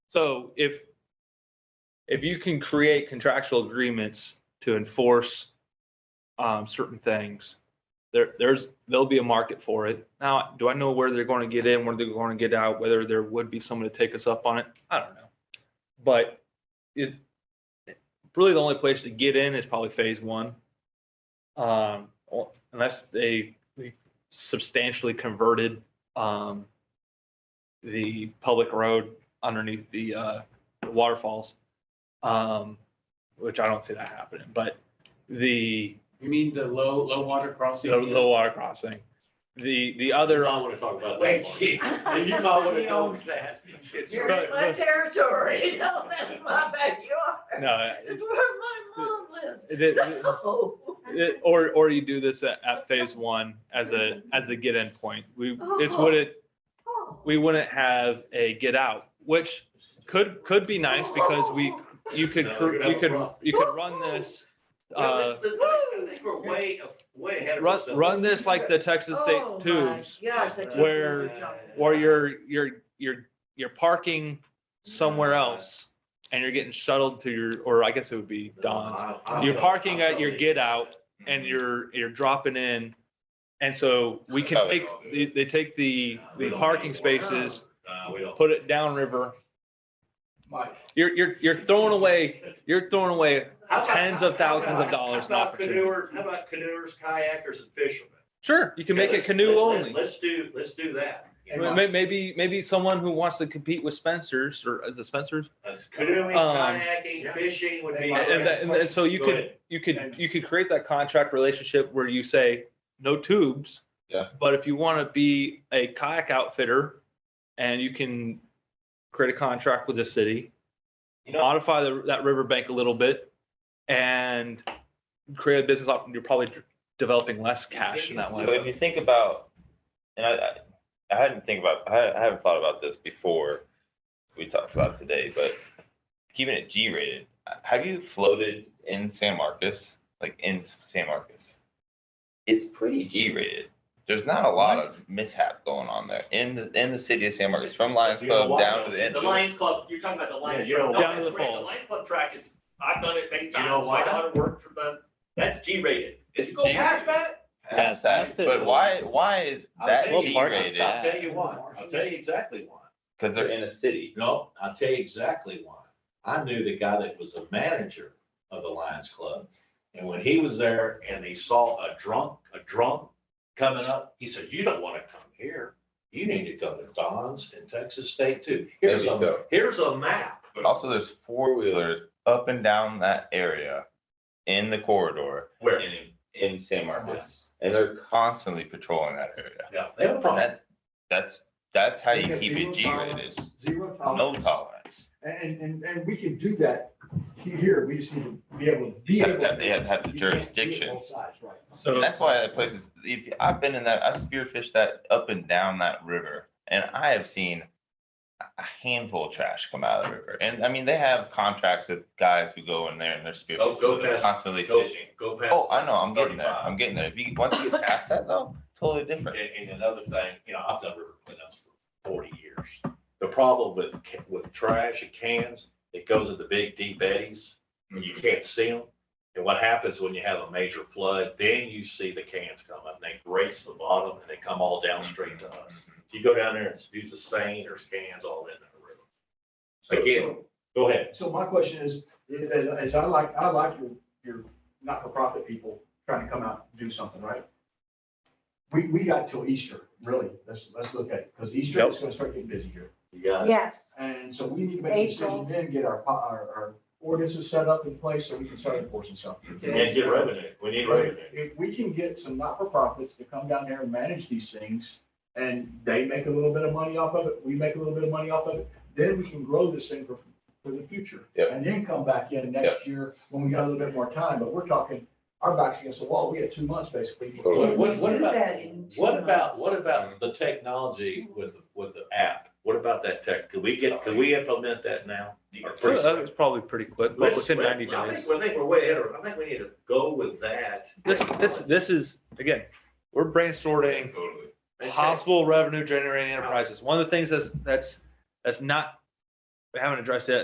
So if, if you can create contractual agreements to enforce um, certain things, there, there's, there'll be a market for it. Now, do I know where they're going to get in, where they're going to get out, whether there would be someone to take us up on it? I don't know. But it, really the only place to get in is probably phase one. Um, or- unless they they substantially converted, um, the public road underneath the uh, the waterfalls, um, which I don't see that happening. But the You mean the low, low water crossing? the, the water crossing, the the other. I want to talk about Wait, that. she- one. You might want He to know owns that. It's You're right. in my territory, you know, that's my backyard. No, It's where my mom lives. it- it- No. it- or or you do this at, at phase one as a as a get in point. We this wouldn't Oh. we wouldn't have a get out, which could could be nice because we Oh. you could No, cr- you're gonna you have a could problem. you could run this. Uh, I think We're way, way ahead of run, ourselves. run this like the Texas State Oh, my tubes, Gosh. I can't where- believe you're talking or about you're, you're, you're, you're parking somewhere else and you're getting shuttled to your, or I guess it would be Don's. You're parking at your get out and you're, you're dropping in. And so we can take, they, they take the, the parking spaces, Uh, we don't. put it downriver. Mike. You're, you're, you're throwing away, you're throwing away, How about- tens of thousands of dollars in how about opportunity. canoer- How about canoers, kayakers and fishermen? sure, you can make it Let's- canoe let- only. Let's do, let's do that. You know, May- may- Maybe, maybe someone who wants to compete with Spencer's or is it Spencer's? Canoeing, Um, kayaking, fishing would be. And, that- and, and so you Go could, ahead. you could, you could create that contract relationship where you say, no tubes. Yeah. But if you want to be a kayak outfitter and you can create a contract with the city, You know- modify the, that riverbank a little bit and create a business op, you're probably d- developing less cash in that So way. if you think about, and I, I- I hadn't think about, I I haven't thought about this before we talked about it today, but keeping it G-rated, have you floated in San Marcos, like in San Marcos? It's pretty G-rated. There's not a lot of mishap going on there in the, in the city of San Marcos, from Lions You know Club why? down to the end. The Lions Club, you're talking about the Lions. Yeah, you Club. know No, it's why. Down to the great. falls. Lions Club track is, I've done it many You know times, why? I've done work for them, that's G-rated. It's Go past G-rated. that, Past that. But why, why is I'll that tell you- G-rated? I'll tell you why. I'll tell you exactly why. Because they're in a city. No, I'll tell you exactly why. I knew the guy that was the manager of the Lions Club. And when he was there and he saw a drunk, a drunk coming up, he said, you don't want to come here. You need to go to Don's in Texas State too. Here's Maybe a, so. here's a map. But also there's four wheelers up and down that area in the corridor Where? in, in San Marcos. And they're constantly patrolling that area. Yeah, they have a And problem. that, that's, that's how you Because keep zero it G rated, tolerance- Zero no tolerance, tolerance. and, and, and we can do that here, we just need to be able to be Have able. that- they have to have the You can't do it jurisdiction. Both sides, right. So, And that's why that place is, if, I've been in that, I've spearfished that up and down that river and I have seen a handful of trash come out of the river. And I mean, they have contracts with guys who go in there and they're Go- go spearfishing, they're past- constantly Go, fishing. go past. Oh, I know, I'm getting there, 35. I'm getting there. If you, once you get past that though, totally different. And, and another thing, you know, I've done river cleanups for forty years. The problem with, ca- with trash and cans, it goes in the big deep eddies, and you can't see them. And what happens when you have a major flood, then you see the cans come up, and they graze the bottom, and they come all down straight to us. If you go down there and use the same, there's cans all in the river. Again, go ahead. So my question is, is, is I like, I like your, your not-for-profit people trying to come out and do something, right? We, we got till Easter, really, let's, let's look at it, because Easter is gonna start getting busy here. You got it. Yes. And so we need to make a April. decision then, get our, po- our, our ordinances set up in place so we can start enforcing something. And get revenue. We need revenue. If we can get some not-for-profits to come down there and manage these things, and they make a little bit of money off of it, we make a little bit of money off of it, then we can grow this thing for, for the future. Yep. And then come back in next year when we got a little bit more time, but we're talking, our back's against the wall, we had two months basically. Totally. What, what, what Do about, that in two what about, months. what about the technology with, with the app? What about that tech? Could we get, could we implement that now? Or pretty that quick? was probably pretty quick, but Let's- within Uh, ninety I days. think- I think we're way ahead of, I think we need to go with that. This, this, this is, again, we're brainstorming Totally. Okay. possible revenue generating enterprises. One of the things that's, that's, that's not we haven't addressed it